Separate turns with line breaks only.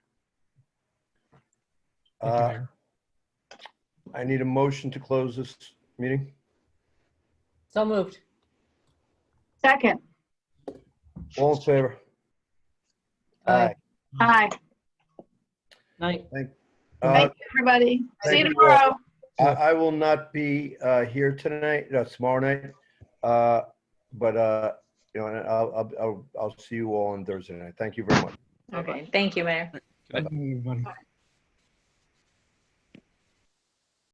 Thank you,
Uh,
Mayor.
I need a motion to close this meeting.
So moved.
Second.
All in favor?
Aye.
Hi.
Night.
Uh,
Thank you, everybody. See
Thank
you
you.
tomorrow.
I, I will not be uh, here tonight, no, tomorrow night. Uh, But, uh, you know, and I'll, I'll- I'll, I'll see you all on Thursday night. Thank you very much.
Okay.
Okay, thank you, Mayor.
Good night, everybody.